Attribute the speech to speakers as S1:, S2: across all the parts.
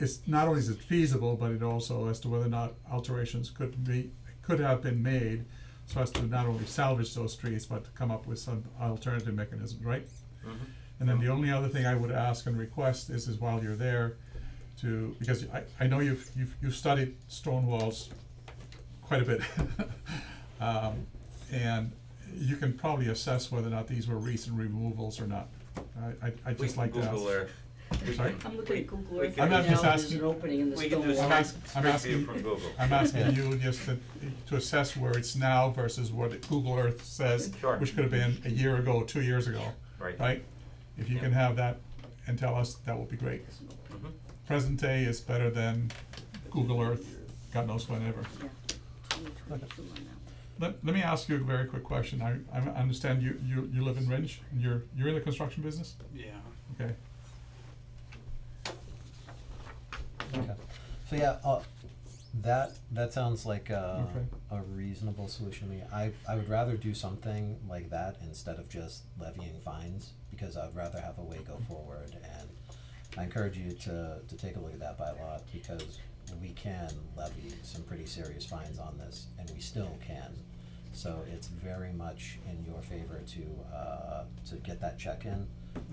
S1: it's not only is it feasible, but it also as to whether or not alterations could be, could have been made so as to not only salvage those trees, but to come up with some alternative mechanism, right?
S2: Mm-hmm.
S1: And then the only other thing I would ask and request is, is while you're there, to, because I, I know you've, you've, you've studied stone walls quite a bit. Um, and you can probably assess whether or not these were recent removals or not. I, I, I'd
S2: We
S1: just
S2: can
S1: like to ask.
S2: Google Earth.
S1: I'm sorry?
S3: I'm looking at Google Earth
S2: can- I'm
S3: right now,
S2: not
S3: and
S1: just
S3: there's
S1: asking-
S3: an opening in the
S2: we can do
S3: stone
S1: I'm
S3: wall.
S2: some-
S1: ask- I'm
S2: Straight
S1: asking-
S2: view from Google.
S1: I'm asking you just to, to assess where it's now versus what it- Google Earth says,
S2: Sure.
S1: which could have been a year ago, two years ago,
S2: Right.
S1: right? If you
S2: Yeah.
S1: can have that and tell us, that would be great.
S2: Mhm.
S1: Present day is better than Google Earth, God knows whenever.
S3: Yeah. 2022 on that one.
S1: Let, let me ask you a very quick question. I, I understand you, you, you live in Rinch, and you're, you're in the construction business?
S4: Yeah.
S1: Okay.
S5: Okay, so yeah, uh, that, that sounds like a,
S1: Okay.
S5: a reasonable solution to me. I, I would rather do something like that instead of just levying fines, because I'd rather have a way go forward, and I encourage you to, to take a look at that bylaw, because we can levy some pretty serious fines on this, and we still can. So it's very much in your favor to, uh, to get that check in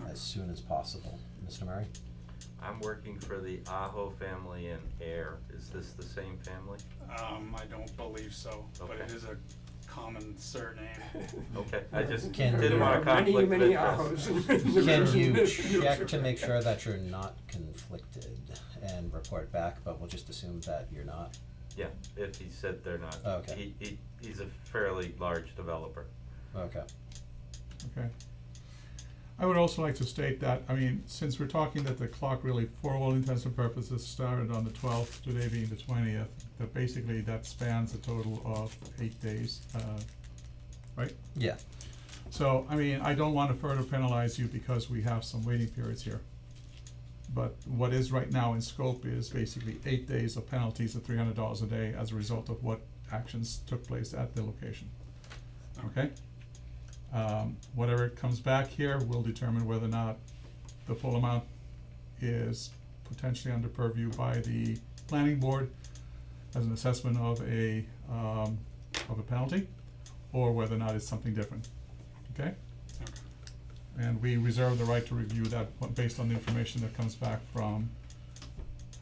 S5: as soon as possible. Mr. Murray?
S2: I'm working for the Aho family in Air. Is this the same family?
S4: Um, I don't believe so, but it
S2: Okay.
S4: is a common surname.
S2: Okay, I just
S5: Can-
S2: didn't want to conflict with
S6: Many, many
S2: this.
S6: hours.
S5: Can you check to make sure that you're not conflicted and report back, but we'll just assume that you're not?
S2: Yeah, if he said they're not.
S1: Oh,
S5: Okay.
S2: He, he, he's a fairly large developer.
S5: Okay.
S1: Okay. I would also like to state that, I mean, since we're talking that the clock really, for all intents and purposes, started on the twelfth, today being the twentieth, that basically that spans a total of eight days, uh, right?
S5: Yeah,
S1: So, I mean, I don't wanna further penalize you because we have some waiting periods here. But what is right now in scope is basically eight days of penalties of three hundred dollars a day as a result of what actions took place at the location. Okay? Um, whatever comes back here will determine whether or not the full amount is potentially under purview by the planning board as an assessment of a, um, of a penalty, or whether or not it's something different, okay?
S4: Okay.
S1: And we reserve the right to review that o- based on the information that comes back from,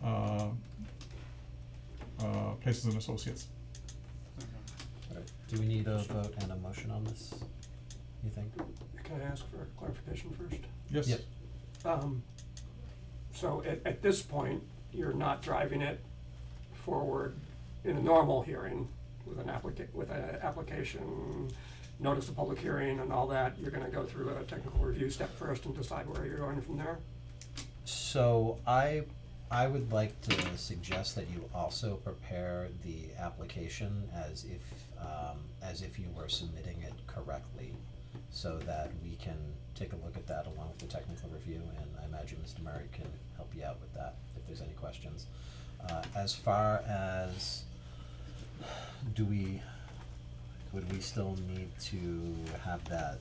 S1: uh, uh, Places and Associates.
S4: Okay.
S5: alright. Do we need a vote and a motion on this, you think?
S6: Can I ask for clarification first?
S1: Yes?
S5: Yep.
S6: Um, so at, at this point, you're not driving it forward in a normal hearing with an applica- with an application, notice of public hearing and all that, you're gonna go through a technical review step first and decide where you're going from there?
S5: So I, I would like to suggest that you also prepare the application as if, um, as if you were submitting it correctly. So that we can take a look at that along with the technical review, and I imagine Mr. Murray can help you out with that if there's any questions. Uh, as far as, do we, would we still need to have that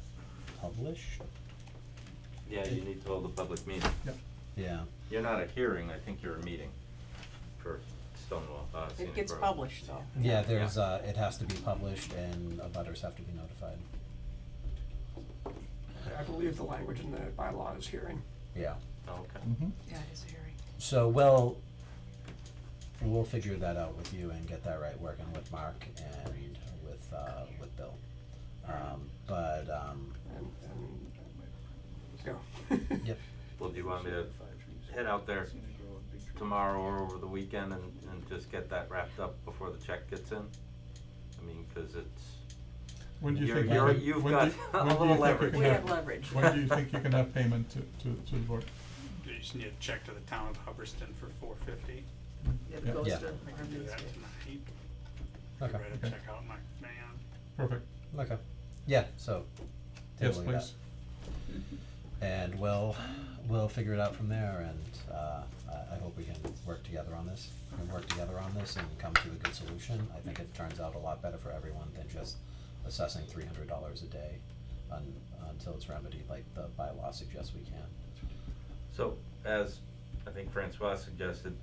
S5: published?
S2: Yeah, you need to hold a public meeting.
S5: Yeah,
S2: You're not a hearing, I think you're a meeting for Stonewall, uh, Scenic
S7: It gets
S2: Road.
S7: published though.
S5: yeah, there's, uh, it has to be published and abutters have to be notified,
S6: I believe the language in the bylaw is hearing.
S5: yeah.
S2: Oh, Okay.
S1: Mhm.
S7: Yeah, it's hearing.
S5: So we'll, we'll figure that out with you and get that right, working with Mark and with, uh, with Bill. Um, but, um,
S6: And, and, go.
S5: yep,
S2: Well, do you want me to head out there tomorrow or over the weekend and, and just get that wrapped up before the check gets in? I mean, cause it's,
S1: When do you
S2: You're-
S1: think?
S2: you're-
S1: can-
S2: you've
S1: when do
S2: got
S1: you-
S2: a
S1: when do you think
S2: little
S1: you
S2: leverage.
S1: can
S7: We have
S1: have-
S7: leverage.
S1: When do you think you can have payment to, to, to the board?
S4: You just need to check to the town of Hubbardston for four fifty.
S7: It
S1: Yeah.
S7: goes
S5: Yeah.
S7: to
S4: I can do that
S7: Hermes.
S4: tonight. I
S5: okay,
S4: read
S1: Okay.
S4: a check out my man.
S1: Perfect.
S5: okay, yeah, so. take a
S1: Yes,
S5: look at that.
S1: please.
S5: And we'll, we'll figure it out from there and, uh, I, I hope we can work together on this. We can work together on this and come to a good solution. I think it turns out a lot better for everyone than just assessing three hundred dollars a day un- until it's remedied like the bylaw suggests we can.
S2: so as I think Francois suggested,